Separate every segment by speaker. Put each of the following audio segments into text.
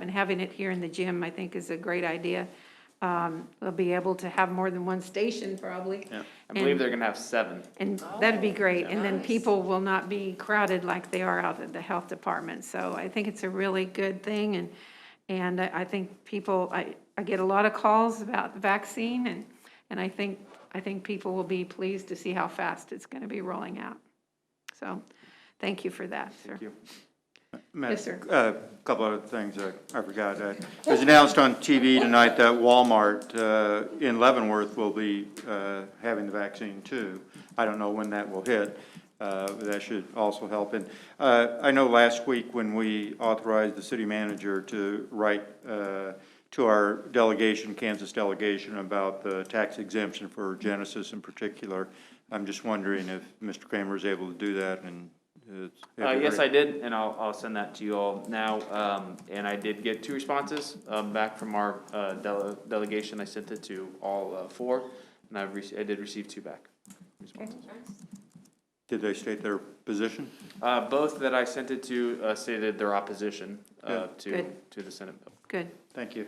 Speaker 1: and having it here in the gym, I think, is a great idea. Um, We'll be able to have more than one station, probably.
Speaker 2: Yeah, I believe
Speaker 1: And-
Speaker 2: they're gonna have seven.
Speaker 1: And that'd be great, and then
Speaker 3: Nice.
Speaker 1: people will not be crowded like they are out at the health department. So I think it's a really good thing, and, and I I think people, I, I get a lot of calls about the vaccine, and, and I think, I think people will be pleased to see how fast it's going to be rolling out. So, thank you for that, sir.
Speaker 4: Madam-
Speaker 1: Yes, sir.
Speaker 4: A couple other things I I forgot. Uh, It was announced on TV tonight that Walmart uh, in Leavenworth will be uh, having the vaccine too. I don't know when that will hit. Uh, but That should also help. And uh, I know last week when we authorized the city manager to write uh, to our delegation, Kansas delegation, about the tax exemption for Genesis in particular, I'm just wondering if Mr. Kramer is able to do that and.
Speaker 2: Uh, yes, I did, and I'll, I'll send that to you all now, um, and I did get two responses, um, back from our, uh, dele- delegation, I sent it to all, uh, four, and I've rece- I did receive two back. responses.
Speaker 4: Did they state their position?
Speaker 2: Uh, both that I sent it to, uh, stated their opposition, uh,
Speaker 4: Yeah.
Speaker 2: to,
Speaker 1: Good.
Speaker 2: to the Senate bill.
Speaker 1: Good,
Speaker 4: Thank you.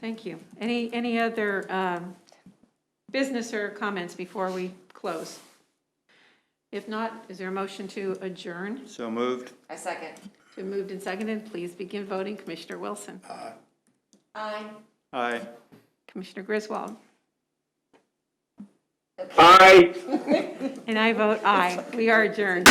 Speaker 1: thank you. Any, any other um, business or comments before we close? If not, is there a motion to adjourn?
Speaker 4: So moved.
Speaker 3: I second.
Speaker 1: Been moved and seconded. Please begin voting. Commissioner Wilson.
Speaker 3: Aye.
Speaker 4: Aye.
Speaker 1: Commissioner Griswold.
Speaker 5: Aye.
Speaker 1: And I vote aye. We are adjourned.